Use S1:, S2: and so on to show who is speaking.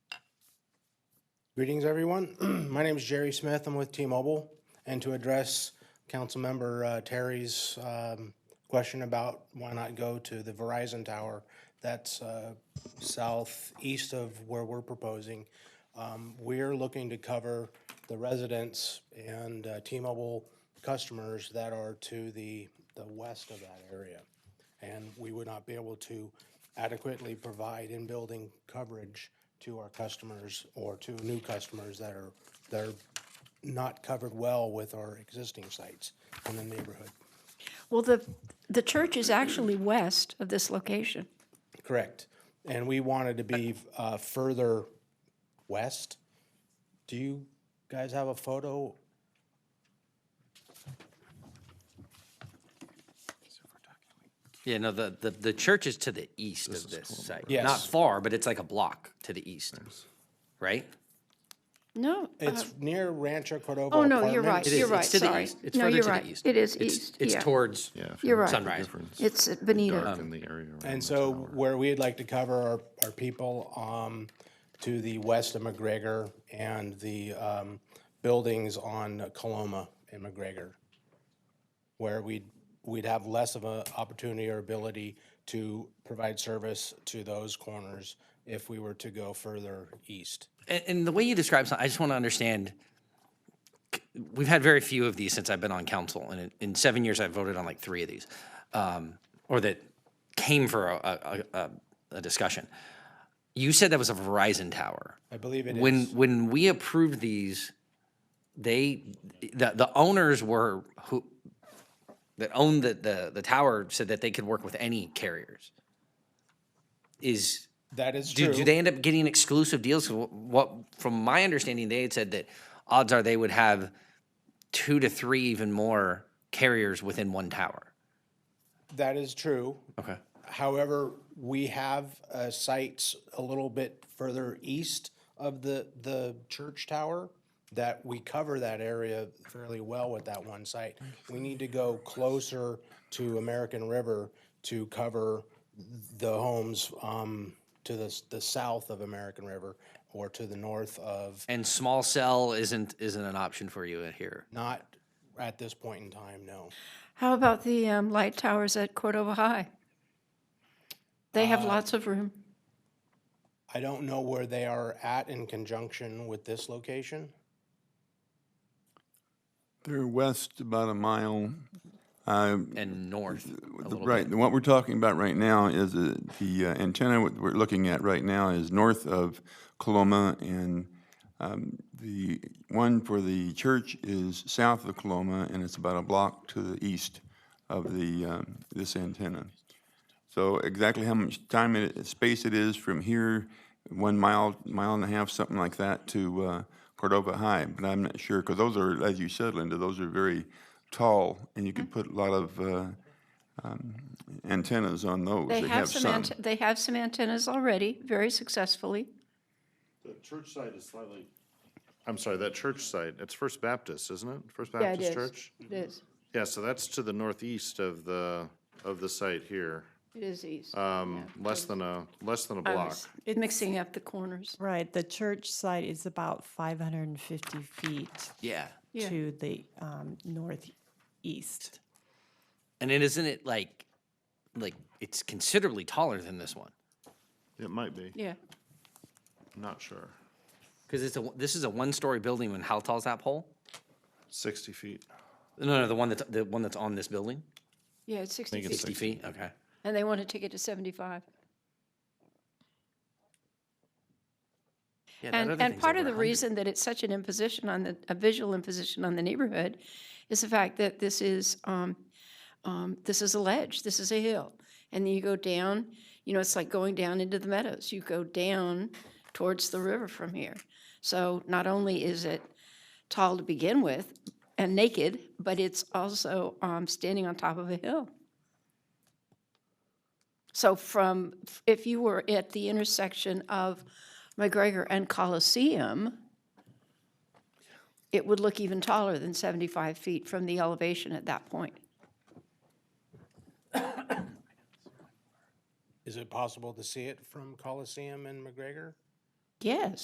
S1: Greetings, everyone. My name is Jerry Smith. I'm with T-Mobile. And to address Councilmember uh, Terry's um, question about why not go to the Verizon Tower, that's uh, southeast of where we're proposing. Um, We're looking to cover the residents and uh, T-Mobile customers that are to the, the west of that area. And we would not be able to adequately provide in-building coverage to our customers or to new customers that are, that are not covered well with our existing sites in the neighborhood.
S2: Well, the, the church is actually west of this location.
S1: Correct. And we wanted to be uh, further west. Do you guys have a photo?
S3: Yeah, no, the, the, the church is to the east of this site. Not
S1: Yes.
S3: far, but it's like a block to the east, right?
S2: No, uh,
S1: It's near Rancho Cordova.
S2: oh, no, you're right,
S1: Apartments.
S3: It is.
S2: you're right,
S3: It's to the
S2: sorry.
S3: east. It's
S2: No,
S3: further
S2: you're
S3: to the
S2: right.
S3: east.
S2: It is
S3: It's-
S2: east,
S3: It's
S2: yeah.
S3: towards,
S4: Yeah. if you
S2: You're right.
S4: look at the
S3: Sunrise.
S4: difference,
S2: It's at
S4: dark
S2: Benito.
S4: in the area around
S1: And
S4: the
S1: so
S4: tower.
S1: where we'd like to cover our, our people um, to the west of McGregor and the um, buildings on Coloma and McGregor, where we'd, we'd have less of an opportunity or ability to provide service to those corners if we were to go further east.
S3: and, and the way you describe something, I just want to understand. c- We've had very few of these since I've been on council, and in, in seven years, I've voted on like three of these, um, or that came for a, a, a, a discussion. You said that was a Verizon tower.
S1: I believe it
S3: when
S1: is.
S3: when we approved these, they the the owners were who that owned the, the the tower said that they could work with any carriers. Is
S1: That is
S3: do,
S1: true.
S3: do they end up getting exclusive deals? 'Cause wh- What from my understanding, they had said that odds are they would have two to three even more carriers within one tower.
S1: That is true.
S3: Okay.
S1: However, we have uh, sites a little bit further east of the, the church tower that we cover that area fairly well with that one site. We need to go closer to American River to cover the homes um, to the, s- the south of American River or to the north of,
S3: And small cell isn't isn't an option for you in here.
S1: not at this point in time, no.
S2: How about the um, light towers at Cordova High? They
S3: Uh,
S2: have lots of room.
S1: I don't know where they are at in conjunction with this location.
S4: They're west about a mile. Uh,
S3: And north, a
S4: the-
S3: little
S4: right.
S3: bit.
S4: What we're talking about right now is uh, the uh, antenna what we're looking at right now is north of Coloma, and um, the one for the church is south of Coloma, and it's about a block to the east of the um, this antenna. So exactly how much time it, space it is from here, one mile, mile and a half, something like that, to uh, Cordova High, but I'm not sure, because those are, as you said, Linda, those are very tall, and you
S2: Mm-hmm.
S4: could put a lot of uh, um, antennas on those.
S2: They have some, ante- they have some antennas already, very successfully.
S5: The church site is slightly. I'm sorry, that church site, it's First Baptist, isn't it? First
S2: Yeah, it
S5: Baptist
S2: is.
S5: Church?
S2: It is,
S5: Yeah, so that's to the northeast of the, of the site here.
S2: it is east.
S5: Um, less than a, less than a
S2: I
S5: block.
S2: was Mixing up the corners.
S6: Right, the church site is about 550 feet
S3: Yeah.
S2: Yeah.
S6: to the um, northeast.
S3: And it isn't it like like it's considerably taller than this one
S5: It might be,
S2: Yeah,
S5: not sure.
S3: because it's a this is a one story building. And how tall is that pole?
S5: Sixty feet.
S3: No, no, the one that's the one that's on this building,
S2: yeah, it's 60 feet.
S3: sixty feet. Okay.
S2: And they want to take it to 75.
S3: Yeah, that
S2: And,
S3: other
S2: and
S3: thing's
S2: part
S3: over
S2: of the
S3: 100.
S2: reason that it's such an imposition on the, a visual imposition on the neighborhood is the fact that this is, um, um, this is a ledge, this is a hill. And then you go down, you know, it's like going down into the meadows. You go down towards the river from here. So not only is it tall to begin with and naked, but it's also, um, standing on top of a hill. So from, if you were at the intersection of McGregor and Coliseum, it would look even taller than 75 feet from the elevation at that point.
S1: Is it possible to see it from Coliseum and McGregor?
S2: Yes.